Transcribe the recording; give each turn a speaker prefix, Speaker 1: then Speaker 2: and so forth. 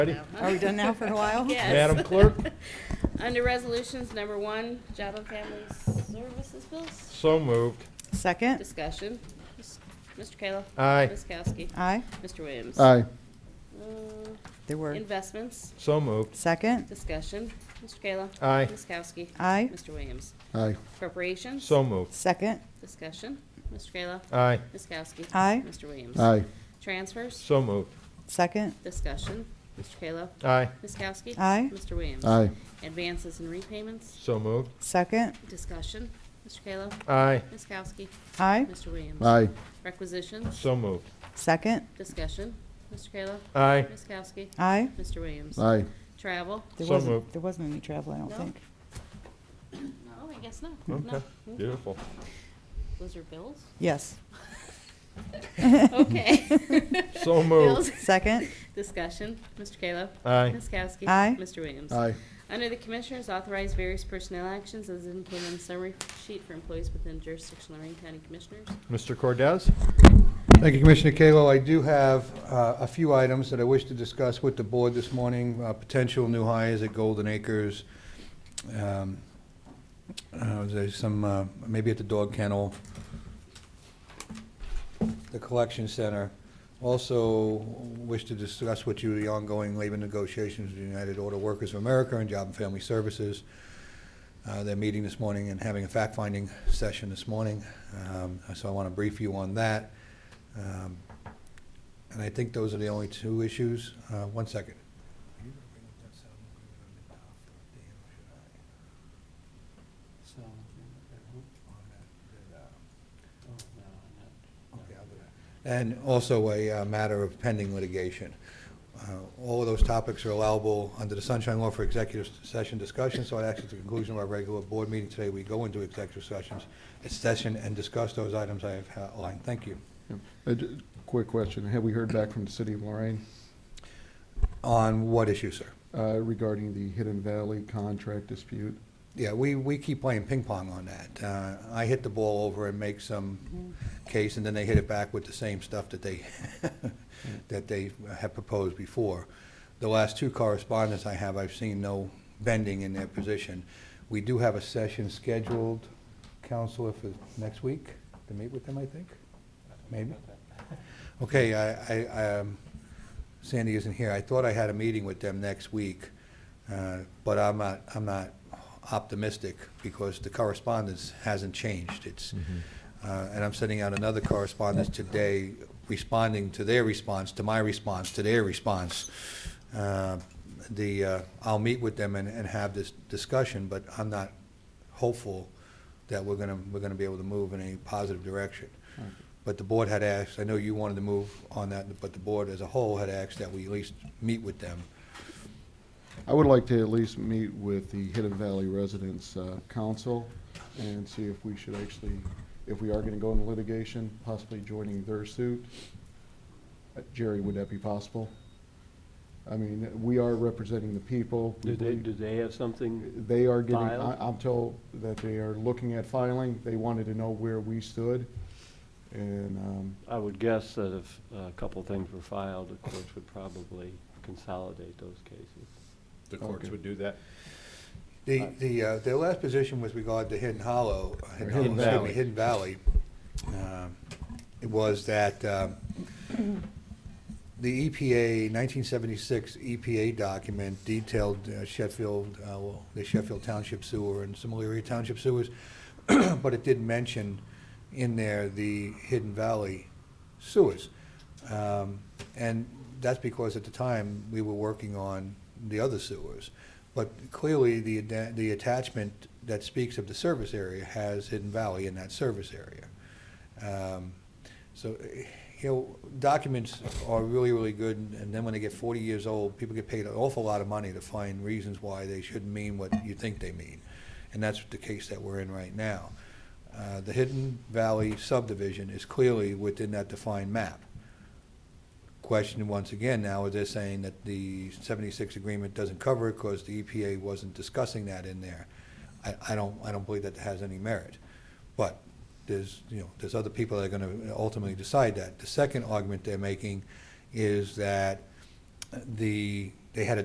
Speaker 1: Ready?
Speaker 2: Are we done now for a while?
Speaker 3: Yes.
Speaker 1: Madam Clerk,
Speaker 3: Under resolutions, number one, job and family services bills.
Speaker 1: so moved.
Speaker 2: Second?
Speaker 3: Discussion. Mis- Mr. Kayla.
Speaker 1: Aye.
Speaker 3: Ms. Kowski.
Speaker 2: Aye.
Speaker 3: Mr. Williams.
Speaker 4: aye,
Speaker 3: Uh,
Speaker 2: There were.
Speaker 3: Investments.
Speaker 1: So moved.
Speaker 2: Second?
Speaker 3: Discussion. Mr. Kayla.
Speaker 1: Aye.
Speaker 3: Ms. Kowski.
Speaker 2: Aye.
Speaker 3: Mr. Williams.
Speaker 4: aye,
Speaker 3: Appropriations.
Speaker 1: So moved.
Speaker 2: Second?
Speaker 3: Discussion. Mr. Kayla.
Speaker 1: Aye.
Speaker 3: Ms. Kowski.
Speaker 2: Aye.
Speaker 3: Mr. Williams.
Speaker 4: aye,
Speaker 3: Transfers.
Speaker 1: So moved.
Speaker 2: Second?
Speaker 3: Discussion. Mr. Kayla.
Speaker 1: Aye.
Speaker 3: Ms. Kowski.
Speaker 2: Aye.
Speaker 3: Mr. Williams.
Speaker 4: aye,
Speaker 3: Advances and repayments.
Speaker 1: So moved.
Speaker 2: Second?
Speaker 3: Discussion. Mr. Kayla.
Speaker 1: Aye.
Speaker 3: Ms. Kowski.
Speaker 2: Aye.
Speaker 3: Mr. Williams.
Speaker 4: aye,
Speaker 3: Requisitions,
Speaker 1: So moved.
Speaker 2: Second?
Speaker 3: discussion, Mr. Kayla.
Speaker 1: Aye.
Speaker 3: Ms. Kowski.
Speaker 2: Aye.
Speaker 3: Mr. Williams.
Speaker 4: aye,
Speaker 3: Travel.
Speaker 2: There
Speaker 1: So
Speaker 2: wasn't,
Speaker 1: moved.
Speaker 2: there wasn't any travel, I don't
Speaker 3: No.
Speaker 2: think.
Speaker 3: No, Oh, I guess not.
Speaker 1: Okay,
Speaker 3: No. Hmm.
Speaker 1: beautiful.
Speaker 3: Those are bills?
Speaker 2: Yes.
Speaker 3: Okay.
Speaker 1: So moved.
Speaker 3: Bills.
Speaker 2: Second?
Speaker 3: Discussion, Mr. Kayla.
Speaker 1: Aye.
Speaker 3: Ms. Kowski.
Speaker 2: Aye.
Speaker 3: Mr. Williams.
Speaker 4: aye,
Speaker 3: Under the Commissioners, authorize various personnel actions as indicated on the summary sheet for employees within jurisdiction of Lorraine County Commissioners.
Speaker 1: Mr. Cordez?
Speaker 5: Thank you, Commissioner Kalo. I do have uh, a few items that I wish to discuss with the board this morning, uh, potential new hires at Golden Acres. um, uh, There's some, uh, maybe at the dog kennel, the collection center. Also wish to discuss with you the ongoing labor negotiations with the United Auto Workers of America and Job and Family Services. Uh, They're meeting this morning and having a fact-finding session this morning, um, so I want to brief you on that. Um, And I think those are the only two issues. Uh, One second. And also a uh, matter of pending litigation. Uh, All of those topics are allowable under the Sunshine Law for executive session discussion, so I ask at the conclusion of our regular board meeting today, we go into executive sessions, session and discuss those items I have outlined. Thank you.
Speaker 4: Uh, d- Quick question, have we heard back from the city of Lorraine
Speaker 5: On what issue, sir?
Speaker 4: uh, regarding the Hidden Valley contract dispute?
Speaker 5: Yeah, we, we keep playing ping pong on that. Uh, I hit the ball over and make some case, and then they hit it back with the same stuff that they, that they have proposed before. The last two correspondents I have, I've seen no bending in their position. We do have a session scheduled, Counselor, for next week to meet with them, I think? Maybe? Okay, I, I, um, Sandy isn't here. I thought I had a meeting with them next week, uh, but I'm not, I'm not optimistic because the correspondence hasn't changed. It's, uh, and I'm sending out another correspondence today responding to their response, to my response, to their response. Uh, The, uh, I'll meet with them and, and have this discussion, but I'm not hopeful that we're gonna, we're gonna be able to move in a positive direction. But the board had asked, I know you wanted to move on that, but the board as a whole had asked that we at least meet with them.
Speaker 4: I would like to at least meet with the Hidden Valley Residents uh, Council and see if we should actually, if we are going to go into litigation, possibly joining their suit. Uh, Jerry, would that be possible? I mean, we are representing the people. We
Speaker 6: Do they,
Speaker 4: believe-
Speaker 6: do they have something?
Speaker 4: They are getting, I-
Speaker 6: Filed?
Speaker 4: I'm told that they are looking at filing. They wanted to know where we stood. And um,
Speaker 6: I would guess that if a couple things were filed, the courts would probably consolidate those cases.
Speaker 1: The
Speaker 4: courts would
Speaker 1: do that.
Speaker 5: The, the, uh, their last position with regard to Hidden Hollow, uh, Hidden
Speaker 1: Or
Speaker 5: Hollow,
Speaker 1: Hidden
Speaker 5: excuse me,
Speaker 1: Valley.
Speaker 5: Hidden Valley, um, it was that um, the E EPA, 1976 EPA E document detailed uh, Sheffield, uh, well, the Sheffield Township sewer and similar area township sewers, but it did mention in there the Hidden Valley sewers. Um, And that's because at the time, we were working on the other sewers. But clearly, the, adda- the attachment that speaks of the service area has Hidden Valley in that service area. Um, So, eh, you know, documents are really, really good, and then when they get 40 years old, people get paid an awful lot of money to find reasons why they shouldn't mean what you think they mean. And that's the case that we're in right now. Uh, The Hidden Valley subdivision is clearly within that defined map. Question once again now, is they're saying that the 76 agreement doesn't cover it because the EPA wasn't discussing that in there. I, I don't, I don't believe that has any merit. But there's, you know, there's other people that are going to ultimately decide that. The second argument they're making is that the, they had a